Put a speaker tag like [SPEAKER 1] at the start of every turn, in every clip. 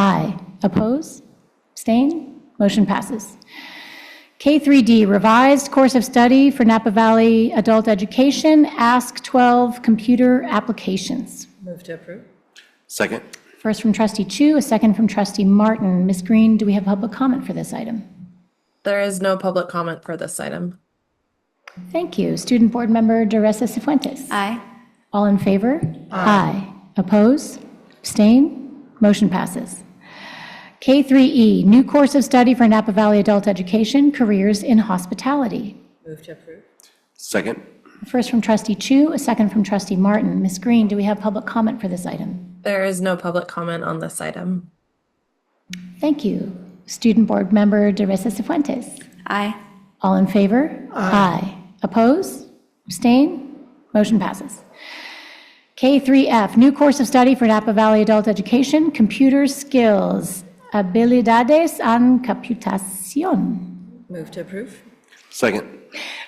[SPEAKER 1] Aye. Oppose? Abstain? Motion passes. K3D, Revised Course of Study for Napa Valley Adult Education, Ask 12 Computer Applications.
[SPEAKER 2] Move to approve.
[SPEAKER 3] Second.
[SPEAKER 1] First from trustee Chu, a second from trustee Martin. Ms. Green, do we have public comment for this item?
[SPEAKER 2] There is no public comment for this item.
[SPEAKER 1] Thank you. Student Board Member Duressa Cifuentes.
[SPEAKER 4] Aye.
[SPEAKER 1] All in favor? Aye. Oppose? Abstain? Motion passes. K3E, New Course of Study for Napa Valley Adult Education, Careers in Hospitality.
[SPEAKER 2] Move to approve.
[SPEAKER 3] Second.
[SPEAKER 1] First from trustee Chu, a second from trustee Martin. Ms. Green, do we have public comment for this item?
[SPEAKER 2] There is no public comment on this item.
[SPEAKER 1] Thank you. Student Board Member Duressa Cifuentes.
[SPEAKER 4] Aye.
[SPEAKER 1] All in favor? Aye. Oppose? Abstain? Motion passes. K3F, new course of study for Napa Valley Adult Education, Computer Skills, Habilidades en Computación.
[SPEAKER 2] Move to approve.
[SPEAKER 3] Second.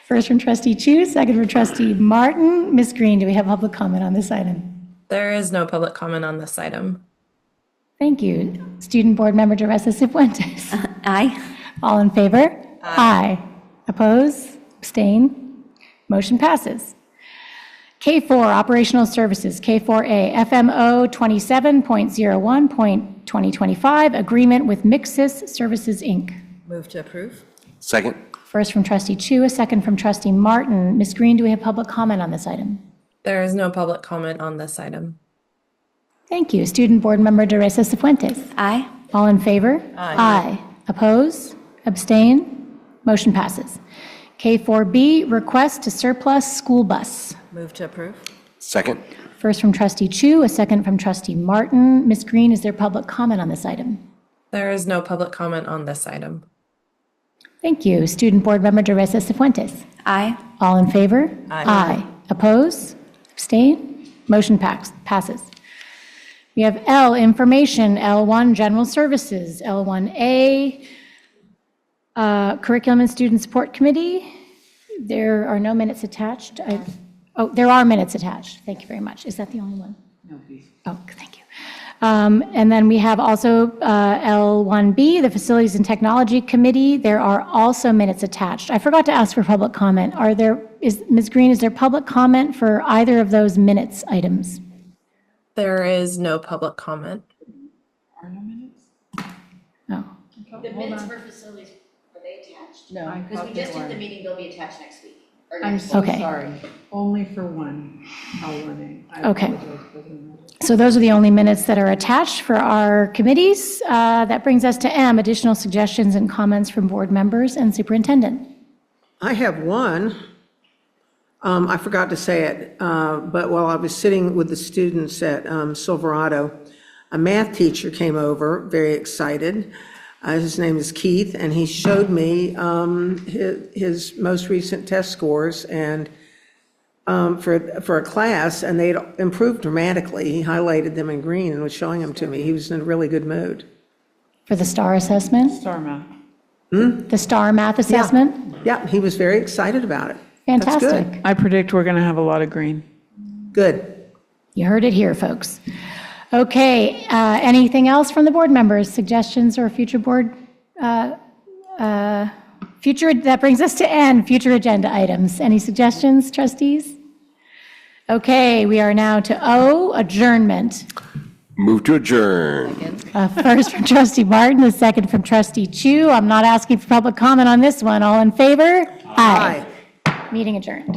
[SPEAKER 1] First from trustee Chu, second from trustee Martin. Ms. Green, do we have public comment on this item?
[SPEAKER 2] There is no public comment on this item.
[SPEAKER 1] Thank you. Student Board Member Teresa Cifuentes.
[SPEAKER 4] Aye.
[SPEAKER 1] All in favor? Aye. Oppose? Abstain? Motion passes. K4, Operational Services, K4A, FMO 27.01.2025, Agreement with Mixis Services, Inc.
[SPEAKER 2] Move to approve.
[SPEAKER 3] Second.
[SPEAKER 1] First from trustee Chu, a second from trustee Martin. Ms. Green, do we have public comment on this item?
[SPEAKER 2] There is no public comment on this item.
[SPEAKER 1] Thank you. Student Board Member Teresa Cifuentes.
[SPEAKER 4] Aye.
[SPEAKER 1] All in favor? Aye. Oppose? Abstain? Motion passes. K4B, request to surplus school bus.
[SPEAKER 2] Move to approve.
[SPEAKER 3] Second.
[SPEAKER 1] First from trustee Chu, a second from trustee Martin. Ms. Green, is there public comment on this item?
[SPEAKER 2] There is no public comment on this item.
[SPEAKER 1] Thank you. Student Board Member Teresa Cifuentes.
[SPEAKER 4] Aye.
[SPEAKER 1] All in favor?
[SPEAKER 2] Aye.
[SPEAKER 1] Oppose? Abstain? Motion pax- passes. We have L, Information, L1, General Services, L1A, uh, Curriculum and Student Support Committee. There are no minutes attached. I- Oh, there are minutes attached. Thank you very much. Is that the only one? No, please. Oh, thank you. Um, And then we have also uh, L1B, the Facilities and Technology Committee. There are also minutes attached. I forgot to ask for public comment. Are there, is, Ms. Green, is there public comment for either of those minutes items?
[SPEAKER 2] There is no public comment.
[SPEAKER 1] Oh,
[SPEAKER 5] The minutes for facilities, are they attached? No. Because we just did the meeting, they'll be attached next week. or
[SPEAKER 6] I'm
[SPEAKER 5] next-
[SPEAKER 6] so
[SPEAKER 1] Okay.
[SPEAKER 6] sorry, only for one, L1A. I
[SPEAKER 1] Okay.
[SPEAKER 6] apologize for the-
[SPEAKER 1] So those are the only minutes that are attached for our committees. Uh, That brings us to M, additional suggestions and comments from board members and superintendent.
[SPEAKER 7] I have one. Um, I forgot to say it, uh, but while I was sitting with the students at um, Silverado, a math teacher came over, very excited. Uh, His name is Keith, and he showed me um, hi- his most recent test scores and um, for, for a class, and they'd improved dramatically. He highlighted them in green and was showing them to me. He was in a really good mood.
[SPEAKER 1] For the STAR assessment,
[SPEAKER 6] Sarma.
[SPEAKER 1] the STAR math assessment?
[SPEAKER 7] Yeah, he was very excited about it. That's good.
[SPEAKER 1] Fantastic.
[SPEAKER 6] I predict we're going to have a lot of green.
[SPEAKER 7] Good.
[SPEAKER 1] You heard it here, folks. Okay, uh, anything else from the board members, suggestions or future board? uh, uh, Future, that brings us to N, future agenda items. Any suggestions, trustees? Okay, we are now to O, adjournment.
[SPEAKER 3] Move to adjourn.
[SPEAKER 1] Uh, First from trustee Martin, the second from trustee Chu. I'm not asking for public comment on this one. All in favor? Aye. Meeting adjourned.